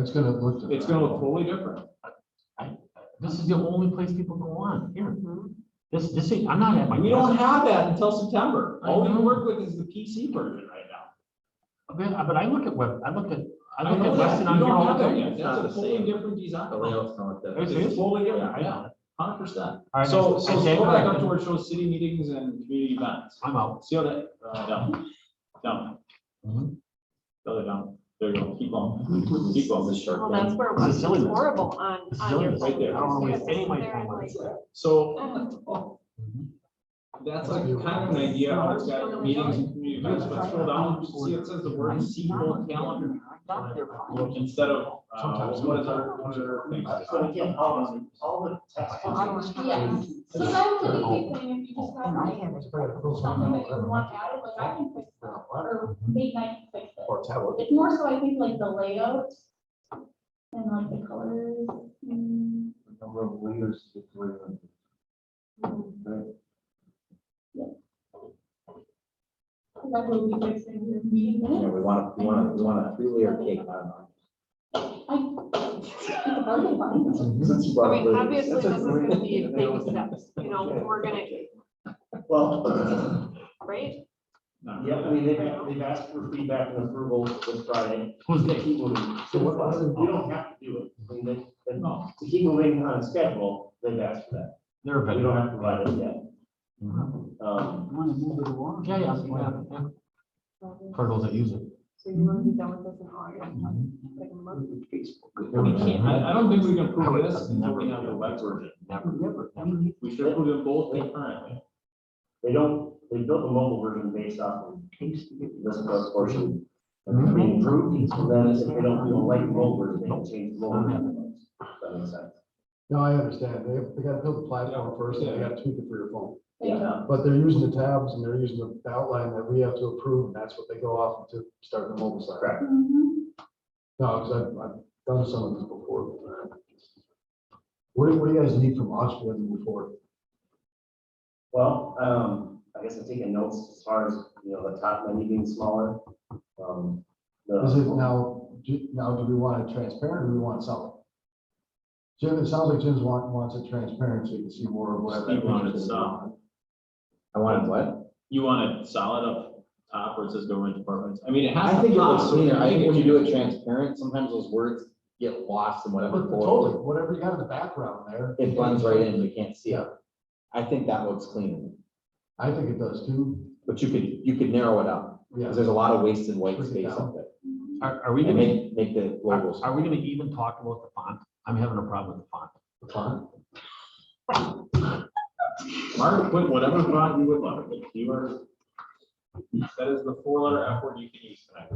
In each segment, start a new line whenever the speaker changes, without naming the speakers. It's gonna look.
It's gonna look totally different.
This is the only place people go on, here. This, this ain't, I'm not at my.
We Mm-hmm. don't have that until September. All we
I know.
work with is the PC version right now.
But but I look at web, I look at, I
I
look at
know
Weston
that.
on
We
here
don't
all
have
the
that
time.
yet.
It's not
That's a
the
totally
same.
different design.
The layout's not like
It's-
that.
It's totally different,
I
yeah,
know.
hundred percent.
All right,
So,
I
so
say-
go back up to where it shows city meetings and community events.
I'm out.
See how that, uh, down, down, Mm-hmm.
Mhm.
the other down. There you go, keep going, keep going this
Well,
sharp.
that's
down.
where it
This is
was
silliness.
horrible on,
This is
on your.
silliness right there. I don't wanna waste any of my
There,
time on
like,
this.
So, that's like kind of an idea, how it's got meetings and community events, but scroll down, see it says the word sequel calendar. Instead of, uh, what is our, what is our thing?
So again, all the, all the text. is-
Yeah. So that's the easy thing, if you
oh.
just have like something that you want added, like I can fix that, or Nate and I can fix it.
Or tablet.
It's more so I think like the layout and like the colors. mm,
Number of leaders. to play on.
hmm.
Right.
'cause I will be fixing your meeting
Yeah,
minutes.
we want, we want, we want a three layer cake on
I-
it.
I mean, obviously, this is gonna be baby steps, you know, we're gonna,
Well,
right?
No.
yeah, I mean, they've, they've asked for feedback and approval this Friday.
Who's
They
they?
keep moving.
So what-
We don't have to do it. I mean, they, they-
No.
to keep moving on a schedule, they've asked for that.
They're a
We
vendor. Mm-hmm.
don't have to provide it yet. Um,
Yeah, yeah, yeah, yeah. For those that use it.
So you wanna be done with this in August? like a month?
We can't, I, I don't think we can prove this until we have the web version.
Never, never,
We should prove them both concurrently.
They don't, they built the mobile version based off of this first portion.
Mhm.
And we improved, so then if they don't, feel like the mobile version, they can change the mobile.
Mm-hmm.
version. That makes sense.
No, I understand. They, they gotta build the platform first, and they gotta tweak it for your phone.
Yeah.
But they're using the tabs and they're using the outline that we have to approve, and that's what they go off to start the mobile site.
Correct.
Mhm.
No, because I've, I've done some of this before. but, uh, What do, what do you guys need from us when we move forward?
Well, um, I guess I'm taking notes as far as, you know, the top menu being smaller. Um, the-
Is it now, do- now do we want it transparent or do we want something? Jim, it sounds like Jim's want, wants it transparent so you can see more of what.
Steve wanted some.
I wanted what?
You want it solid up top where it says government departments? I mean, it has.
I think it
top,
looks
so
cleaner. I think when you do it
can-
transparent, sometimes those words get lost in whatever. folder.
Totally, whatever you got in the background there.
It blends right in, you can't see it. I think that looks cleaner,
I think it does too,
but you could, you could narrow it up,
yeah.
because there's a lot of wasted white
Push it
space
down.
up there.
Are, are we
And
gonna,
make, make the logos.
are are we gonna even talk about the font? I'm having a problem with the font.
the font.
Mark, put whatever font you would like. If You are. That is the four letter F word you can use tonight.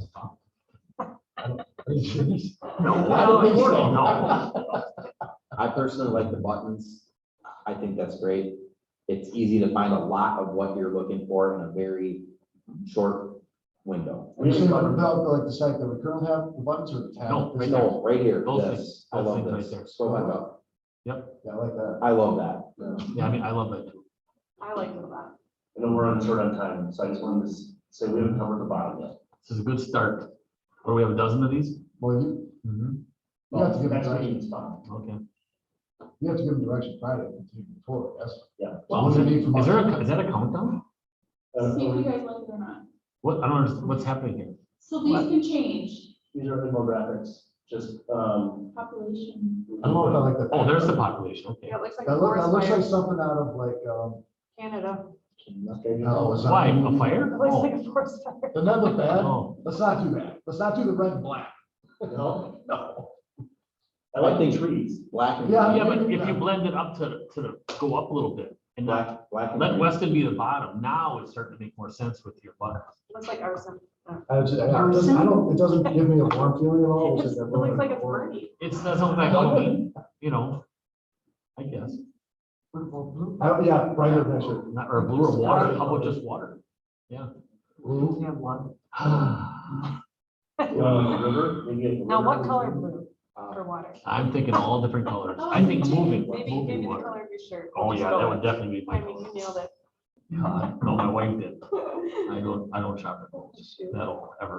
No,
I don't think so.
I personally like the buttons. I think that's great. It's easy to find a lot of what you're looking for in a very short window.
Are you saying about like the site that we currently have, the buttons or the tab?
No, right there.
No, right here,
Those
this,
things,
I
those
love
things right
this.
there.
Scroll back up.
Yeah, I like that.
I love that.
yeah.
Yeah, I mean, I love that too.
I like that.
I know we're on short on time, so I just wanted to s- say we haven't covered the bottom yet.
This is a good start. Or we have a dozen of these?
Well, you,
Mm-hmm.
you have to give them
That's
direction,
Ian's fine. Uh,
Okay.
you have to give them direction Friday, the day before, yes.
Yeah.
So what do you need from
Is
us?
there, a- is that a countdown?
Uh,
See if you guys like it or not.
What, I don't understand, what's happening here?
So these can change,
These are infographics, just, um.
population.
I don't know if I like that.
Oh, there's the population, okay.
Yeah, it looks like a
That looks, that looks
forest
like
fire,
something out of like, um,
Canada,
no, it's not.
Why, a fire?
it looks
Oh.
like a forest fire.
Doesn't that look bad?
Oh.
Let's not do that. Let's not do the red and black.
No, no. I like the trees.
Black and.
Yeah,
green.
Yeah, but if you blend it up to, the- to the, go up a little bit and not,
Black, black and.
let
green.
Weston be the bottom, now it's starting to make more sense with your buttons.
Looks like arson.
I just- I don't, I don't- it doesn't give me a warm feeling at all.
It's-
It's
It
like that
looks like it's
red and
burning.
It's not something like Halloween, you know, I guess.
black. I don't- Yeah, right here, next year.
Not- Or blue or water, how about just water?
Blue.
You know, like the river, they get the
Now, what
river.
color blue
Uh,
for water?
I'm thinking all different colors. I think moving,
Oh, Maybe,
moving
maybe the
water.
color of your shirt.
Oh,
Just
yeah,
go
that
with
would
it.
definitely be my
I mean,
color.
you nailed it.
No, my wife did. I don't, I don't shop at Kohl's.
Shoot.
That'll ever.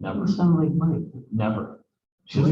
Never,
Sound like Mike.
never.